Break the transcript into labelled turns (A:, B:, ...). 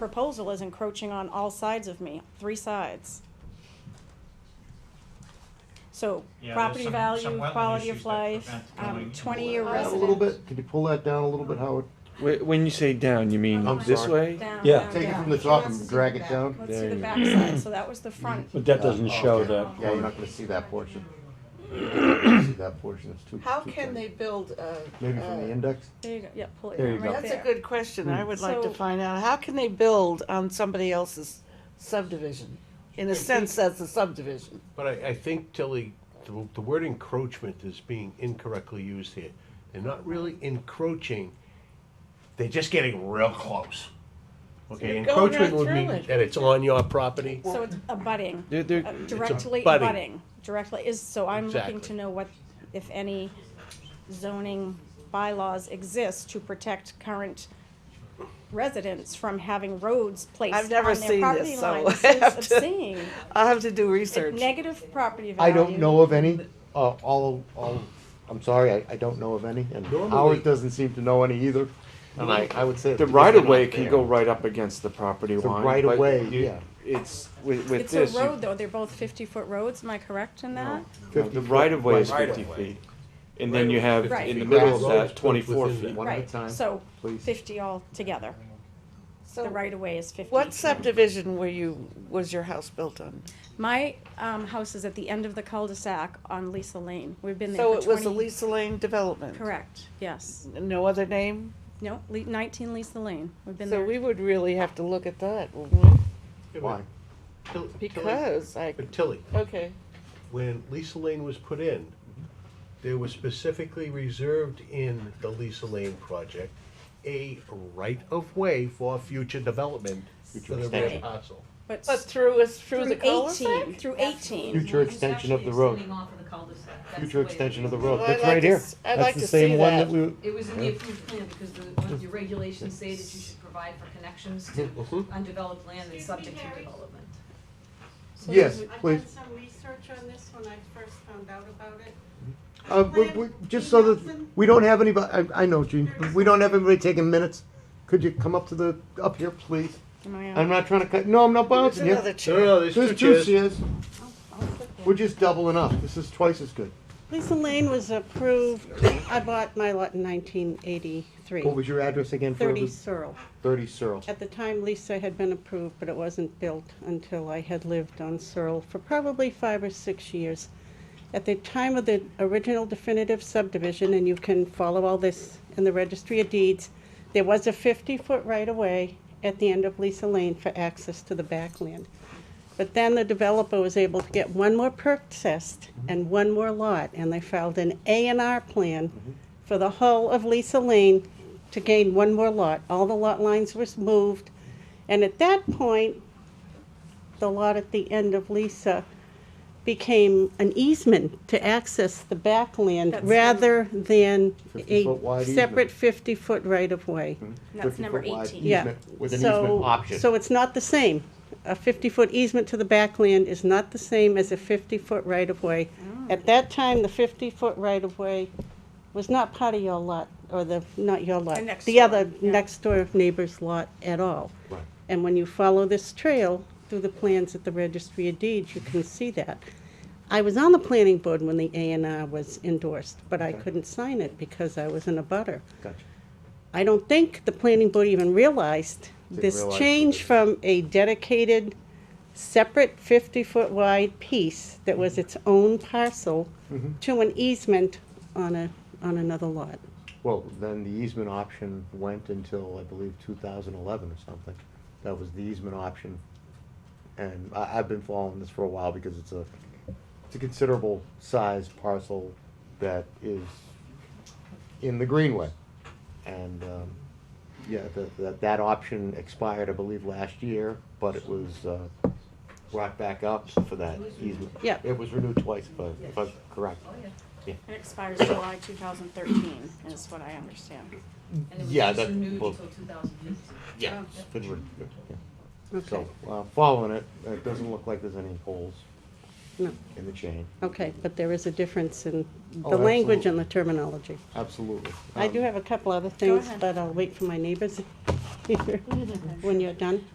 A: proposal is encroaching on all sides of me, three sides. So
B: Yeah, there's
A: property
B: some-
A: value,
B: some wetland
A: quality
B: issues
A: of
B: that
A: life,
B: prevent going
A: um, twenty-year
C: anywhere.
D: Down
A: residence.
D: a little bit, could you pull that down a little bit, Howard?
E: Wh- When you say down, you mean
D: I'm
E: this
D: sorry.
E: way?
A: Down,
C: Yeah.
A: down,
D: Take it
A: down.
D: from the top and drag it down?
A: Let's see
E: There
A: the
E: you go.
A: backside, so that was the front.
C: But that doesn't
D: Uh,
C: show
D: okay.
C: that.
D: Yeah, you're not gonna see that portion. You're not gonna See that portion, it's too.
F: How
D: too
F: can they
D: tiny.
F: build a?
D: Maybe from the
A: uh,
F: a-
D: index?
A: There you go, yeah, pull it
C: There you
A: down
C: go.
A: right
F: That's a
A: there.
F: good question, I would like to
A: So-
F: find out, how can they build on somebody else's subdivision? In a sense, that's a subdivision.
G: But I, I think, Tilly, the, the word encroachment is being incorrectly used here. They're not really encroaching, they're just getting real close. Okay,
F: They're going right
G: encroachment would mean
F: through it.
G: that it's on your property.
A: So it's abutting,
E: They're- they're-
A: uh, directly
G: abutting.
A: abutting, directly is, so I'm looking
G: Exactly.
A: to know what, if any zoning bylaws exist to protect current residents from having roads
F: I've
A: placed
F: never
A: on their
F: seen
A: property
F: this, so I
A: lines.
F: have
A: It's
F: to-
A: obscene.
F: I'll have to do research.
A: Negative property
D: I
A: value.
D: don't know of any, uh, all, all, I'm sorry, I, I don't know of any, and
G: Normally-
D: Howard doesn't seem to know any either. And I, I would say.
E: The
D: because
E: right
D: they're
E: of way
D: not
E: can
D: there.
E: go right up against the property
D: The
E: line.
D: right of
E: but
D: way,
E: you-
D: yeah.
E: It's, with, with
A: It's a
E: this, you-
A: road though, they're both fifty-foot roads, am I correct in that?
E: no,
D: 50
E: the right of way is
D: foot.
E: fifty feet. And then you
G: Right.
E: have,
A: Right.
E: in the
D: Right.
E: middle
D: Grass
E: of
G: roads
E: that,
G: built
E: twenty-four
G: within
E: feet.
D: One at a
A: Right,
D: time.
A: so
D: please.
A: fifty altogether, the
F: So,
A: right of way is fifty.
F: what subdivision were you, was your house built on?
A: My, um, house is at the end of the cul-de-sac on Lisa Lane, we've been there
F: So
A: for
F: it was a
A: twenty.
F: Lisa Lane development?
A: Correct, yes.
F: No other name?
A: No, Le- nineteen Lisa Lane, we've been
F: So
A: there.
F: we would really have to look at that, wouldn't we?
D: Why?
G: Till- Tilly-
F: Because I,
G: But Tilly,
F: okay,
G: when Lisa Lane was put in, there was specifically reserved in the Lisa Lane project a right-of-way for future development for the rear
D: expansion.
G: parcel.
A: But
F: but
A: s-
F: through us, through
A: through
F: the cul-de-sac?
A: eighteen, through
H: That's the
A: eighteen,
D: Future
H: reason why
D: extension of the
H: it's
D: road.
H: extending off of the cul-de-sac. That's the
D: Future
H: way it
D: extension of
H: is.
D: the road,
F: Well,
D: that's
F: I'd like
D: right
F: to
D: here.
F: s- I'd
D: That's
F: like
D: the
F: to
D: same
F: see
D: one
F: that.
D: that we.
H: It was in the approved plan because the, one of your regulations say that you should provide for connections to
D: Mm-hmm.
H: undeveloped land and subject to development.
D: So Yes,
H: there's
C: I've
D: please.
C: done some research on this when I first found out about it.
D: Uh, we,
C: Plan-
D: we, just so that,
C: Nelson?
D: we don't have anybody, I, I know, Gene, we don't have anybody taking minutes. Could you come up to the, up here, please?
A: Am I uh, on?
D: I'm not trying to cut, no, I'm not
F: There's
D: bouncing
F: another
D: you.
G: No,
F: chair.
G: no, there's
D: There's
G: two
D: two
G: chairs.
D: chairs, we're just doubling up, this is twice as good.
C: Lisa Lane was approved, I bought my lot in nineteen eighty-three,
D: What was your address again for
C: thirty
D: the
C: Searle.
D: thirty Searle?
C: At the time, Lisa had been approved, but it wasn't built until I had lived on Searle for probably five or six years. At the time of the original definitive subdivision, and you can follow all this in the registry of deeds, there was a fifty-foot right-of-way at the end of Lisa Lane for access to the backland. But then the developer was able to get one more perk test
D: Mm-hmm.
C: and one more lot, and they filed an A and R plan
D: Mm-hmm.
C: for the whole of Lisa Lane to gain one more lot. All the lot lines was moved, and at that point, the lot at the end of Lisa became an easement to access the backland
A: That's-
C: rather than a
D: 50-foot wide easement. Mm-hmm.
C: separate fifty-foot right-of-way.
A: That's number
D: 50-foot wide
A: eighteen.
C: Yeah.
D: easement With an
C: So-
D: easement option.
C: So it's not the same. A 50-foot easement to the backland is not the same as a 50-foot right-of-way.
A: Oh.
C: At that time, the 50-foot right-of-way was not part of your lot, or the, not your lot.
A: The next
C: The other
A: door, yeah.
C: next-door neighbor's lot at all.
D: Right.
C: And when you follow this trail through the plans at the Registry of Deeds, you can see that. I was on the planning board when the A and R was endorsed, but I couldn't sign it because I was in a butter.
D: Gotcha.
C: I don't think the planning board even realized
D: Didn't
C: this
D: realize what
C: change
D: it-
C: from a dedicated, separate fifty-foot wide piece that was its own parcel
D: Mm-hmm.
C: to an easement on a, on another lot.
D: Well, then the easement option went until, I believe, two thousand eleven or something. That was the easement option. And I, I've been following this for a while because it's a, it's a considerable size parcel that is in the greenway. And, um, yeah, that, that, that option expired, I believe, last year, but it was, uh, brought back up for that easement.
C: Yeah.
D: It was renewed twice, if I- if I'm correct.
H: Oh, yeah.
A: It expires July two thousand thirteen, is what I understand.
H: And it was
D: Yeah,
H: just
D: that-
H: renewed
D: well-
H: until 2015.
D: Yeah.
C: Okay,
D: So, uh, following it, it doesn't look like there's any holes
C: No.
D: in the chain.
C: okay, but there is a difference in the
D: Oh,
C: language and
D: absolutely.
C: the terminology.
D: Absolutely.
C: I do
D: Um,
C: have a couple other things,
A: ahead.
C: but I'll wait for my neighbors when you're done.